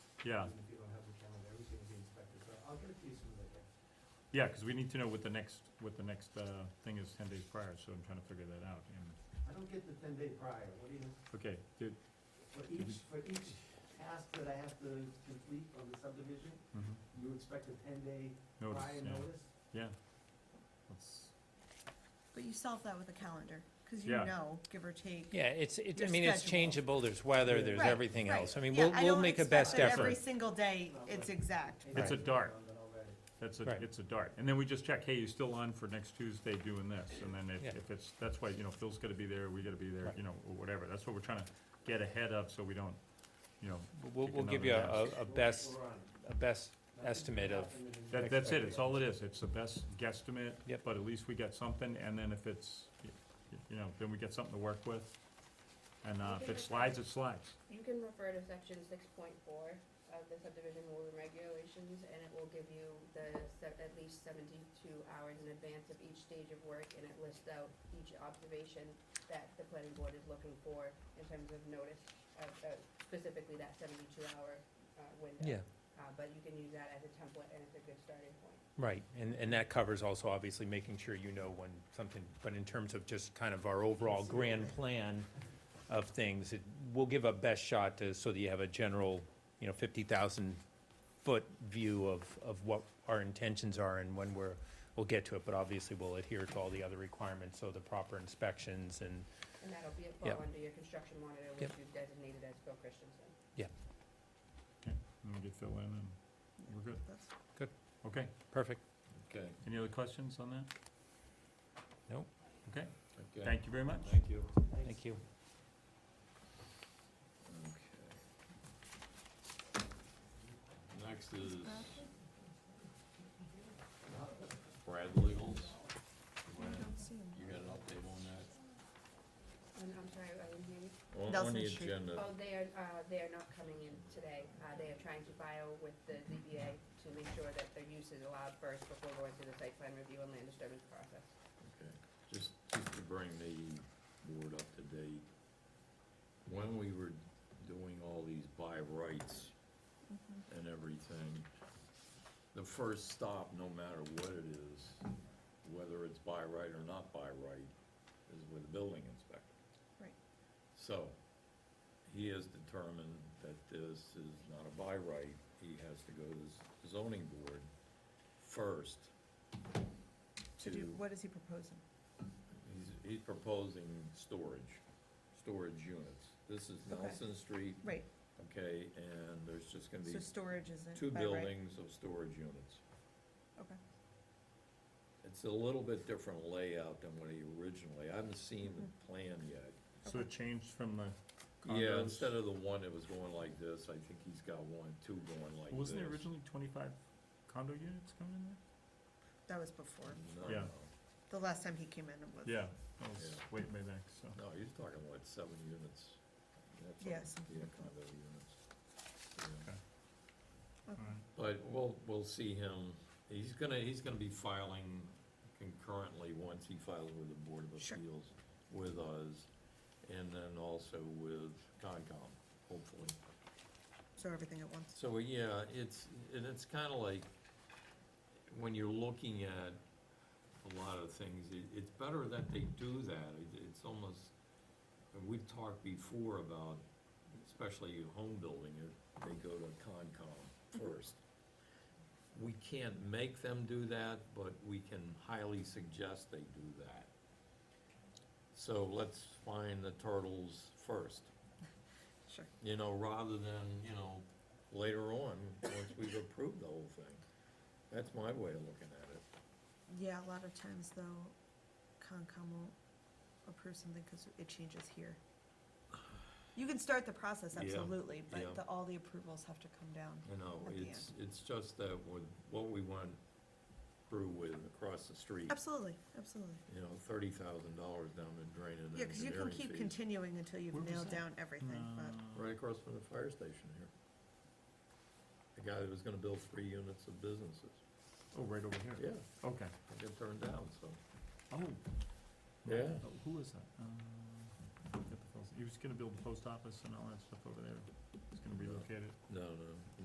Yeah. Even if you don't have the camera, everything will be inspected, so I'll get it to you soon as I can. Yeah, because we need to know what the next, what the next uh, thing is ten days prior, so I'm trying to figure that out. And- I don't get the ten day prior, what do you, Okay, dude. for each, for each task that I have to complete on the subdivision, Mm-hmm. mhm. you expect a ten day Notice, prior yeah, notice? yeah. Let's, But you solve that with a calendar, because you Yeah. know, give or take. Yeah, it's, it, I Your mean, it's schedule. changeable, there's weather, there's Right, everything right. else. I mean, Yeah, we'll, we'll don't make a expect best that effort. Every single day, it's exact. Hey, It's a that's dart. done, done already. that's a, Right. it's a dart. And then we just check, hey, you still on for next Tuesday doing this? And then Yeah. if, if it's, that's why, you know, Phil's gotta be there, we gotta be there, Right. you know, or whatever. That's what we're trying to get ahead of, so we don't, you know, We'll, Take we'll give you a, another a a We're- best, we're on it. a best Nothing's estimate of, happened in- that, that's it. It's all it is. It's the best guesstimate. Yep. But at least we get something, and then if it's, y- y- you know, then we get something to work with. And, uh, if it slides, it slides. You can refer to section six point four of the subdivision rules and regulations, and it will give you the, se- at least seventy-two hours in advance of each stage of work, and it lists out each observation that the planning board is looking for in terms of notice, uh, uh, specifically that seventy-two hour, uh, window. yeah, Uh, but you can use that as a template, and it's a good starting point. right. And, and that covers also obviously making sure you know when something, but in terms of just kind of our overall grand plan of things, it, we'll give a best shot to, so that you have a general, you know, fifty thousand foot view of, of what our intentions are and when we're, we'll get to it, but obviously we'll adhere to all the other requirements, so the proper inspections and And that'll be, Yep. fall under your construction monitor, which Yep. you designated as Phil Christensen. And we get Phil in, and we're good. That's- Okay, Perfect. Okay, any other questions on that? okay. Thank you very much. Thank you. Thank you. Next is Brad Legals. I don't see 'em. You got an update on that? And I'm sorry, I didn't hear you. Nelson Street. Oh, they are, uh, they are not coming in today. Uh, they are trying to file with the ZBA to make sure that their use is allowed first before going through the site plan review and land disturbance process. Okay, just, just to bring the board up to date, when we were doing all these buy rights Mm-hmm. and everything, the first stop, no matter what it is, whether it's by right or not by right, is with the building inspector. Right. So, he has determined that this is not a by right, he has to go to the zoning board first So to do, what is he proposing? He's, he's proposing storage, storage units. This is Okay. Nelson Street, Right, okay, and there's just gonna be so storage isn't. two by right. buildings of storage units. Okay. It's a little bit different layout than what he originally, I haven't seen the plan yet. So it changed from the Yeah, condos. instead of the one that was going like this, I think he's got one, two going like this. Wasn't there originally twenty-five condo units coming in there? That was before. No, Yeah. no, The last time he came in it was. Yeah, that was Yeah. way, way back, so. no, he's talking what, seven units? That's- Yes. Yeah, condo units. Yeah. all right. But we'll, we'll see him, he's gonna, he's gonna be filing concurrently, once he files with the Board of Sure. Appeals, with us, and then also with Concom, hopefully. So everything at once. So, yeah, it's, and it's kinda like, when you're looking at a lot of things, it, it's better that they do that, it, it's almost, and we've talked before about, especially in home building, if they go to Concom first. We can't make them do that, but we can highly suggest they do that. So let's find the turtles first Sure. you know, rather than, you know, later on, once we've approved the whole thing. That's my way of looking at it. Yeah, a lot of times though, Concom will approve something because it changes here. You can start the process, Yeah, absolutely, yeah. but the, all the approvals have to come down. You know, At the it's, it's just that with what we went through with across the street, Absolutely, absolutely. you know, thirty thousand dollars down the drain in Yeah, because you can engineering keep fees. continuing until Where you've was nailed that? down everything, but. Uh, Right across from the fire station here. The guy that was gonna build three units of businesses. Oh, right over here. Yeah, Okay. it got turned down, so. Oh. Yeah. Oh, Who is that? Uh, get the post- He was gonna build the post office and all that stuff over there. He's gonna relocate it. No, no,